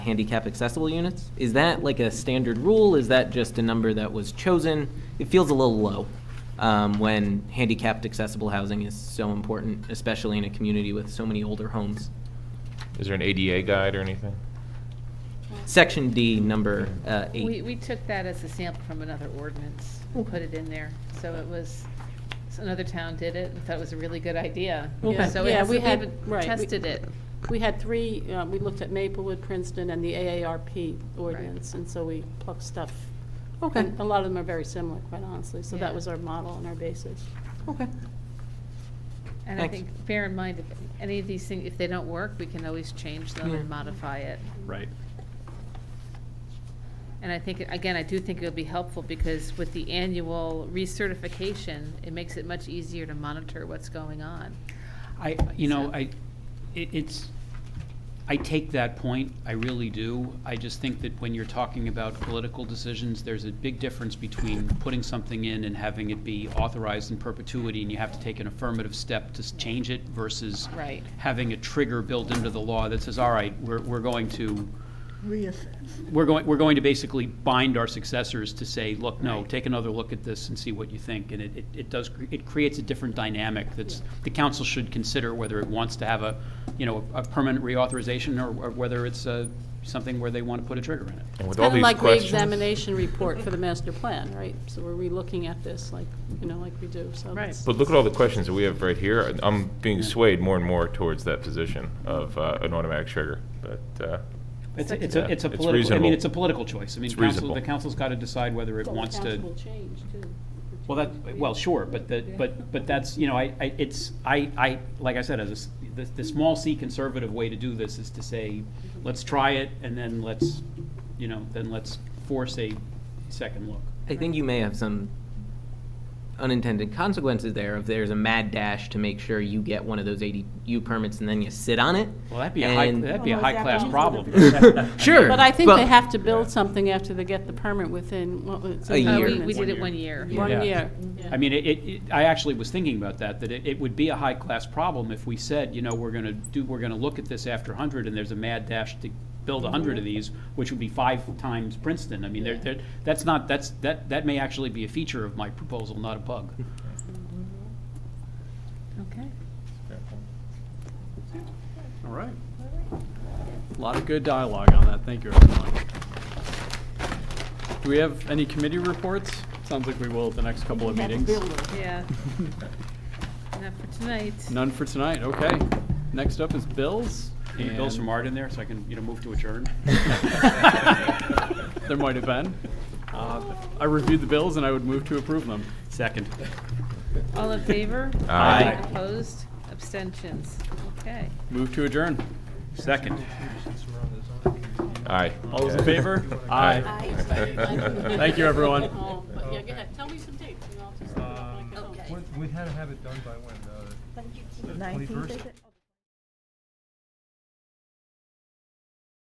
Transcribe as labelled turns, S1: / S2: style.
S1: handicap accessible units? Is that like a standard rule? Is that just a number that was chosen? It feels a little low um, when handicapped accessible housing is so important, especially in a community with so many older homes.
S2: Is there an ADA guide or anything?
S1: Section D, number uh, eight.
S3: We, we took that as a sample from another ordinance and put it in there. So it was, so another town did it and thought it was a really good idea.
S1: Okay.
S3: So it
S4: Yeah, we
S3: hasn't
S4: had-
S3: even
S4: right, we-
S3: tested it.
S4: We had three, uh, we looked at Maplewood, Princeton, and the AARP ordinance, and so we plucked stuff.
S1: Okay,
S4: And a lot of them are very similar, quite honestly, so that
S3: Yeah.
S4: was our model and our basis.
S1: okay.
S3: And I
S1: Thanks.
S3: think, bear in mind, if any of these things, if they don't work, we can always change them
S1: Yeah.
S3: and modify it.
S5: Right.
S3: And I think, again, I do think it'll be helpful because with the annual recertification, it makes it much easier to monitor what's going on.
S5: I, you know,
S3: So-
S5: I, it- it's, I take that point, I really do. I just think that when you're talking about political decisions, there's a big difference between putting something in and having it be authorized in perpetuity, and you have to take an affirmative step to s- change it versus
S3: Right.
S5: having a trigger built into the law that says, all right, we're, we're going to, we're going, we're going to basically bind our successors to say, look, no, take another look at this and see what you think. And it, it- it does, cre- it creates a different dynamic that's, the council should consider whether it wants to have a, you know, a permanent reauthorization or or whether it's uh, something where they want to put a trigger in it.
S2: And with
S4: It's
S2: all
S4: kind of
S2: these
S4: like
S2: questions,
S4: reexamination report for the master plan, right? So we're relooking at this like, you know, like we do, so.
S3: Right.
S4: that's-
S2: But look at all the questions that we have right here. and I'm being swayed more and more towards that position of uh, an automatic trigger, but, uh,
S5: It's, a- it's a, it's a
S2: It's
S5: political, I mean,
S2: reasonable.
S5: it's a political choice. I mean,
S2: It's
S5: council,
S2: reasonable.
S5: the council's got to decide whether it
S4: Well, the
S5: wants to.
S4: council will change, too.
S5: Well, that, well, sure, but the, but, but that's, you know, I, I, it's, I, I, like I said, as a s the, the small C conservative way to do this is to say, let's try it, and then let's, you know, then let's force a second look.
S1: I think you may have some unintended consequences there if there's a mad dash to make sure you get one of those ADU permits and then you sit on it.
S5: Well, that'd be a high,
S1: and-
S5: that'd be a
S4: Well, is that
S5: high-class
S4: wrong?
S5: problem.
S1: Sure.
S4: Oh, But I think
S1: but-
S4: they have to build something after they get the permit within, what was
S1: A
S4: it?
S3: Uh,
S1: year.
S3: we, we
S5: One
S3: did it
S5: year.
S3: one year.
S4: One
S5: Yeah.
S4: year.
S5: I mean, it, it, it- I actually was thinking about that, that it, it would be a high-class problem if we said, you know, we're gonna do, we're gonna look at this after hundred, and there's a mad dash to build hundred of these, which would be five times Princeton. I mean, there, there, that's not, that's, that, that may actually be a feature of my proposal, not a bug.
S3: Okay.
S6: All right. A lot of good dialogue on that. Thank you, everyone. Do we have any committee reports? Sounds like we will at the next couple of meetings.
S3: Yeah. Not for tonight.
S6: None for tonight, okay. Next up is bills.
S5: Any bills
S6: and-
S5: from Art in there, so I can, you know, move to adjourn?
S6: There might have been. Uh, I reviewed the bills and I would move to approve them.
S5: Second.
S3: All in favor?
S2: Aye.
S5: Aye.
S3: Opposed? Abstentions? Okay.
S6: Move to adjourn.
S5: Second.
S2: aye.
S6: All those in favor?
S2: Aye.
S6: Thank you, everyone.
S4: Oh, but yeah, go ahead. Tell me some dates. and I'll just- Oh,
S7: We we had to have it done by when, uh, the twenty-first?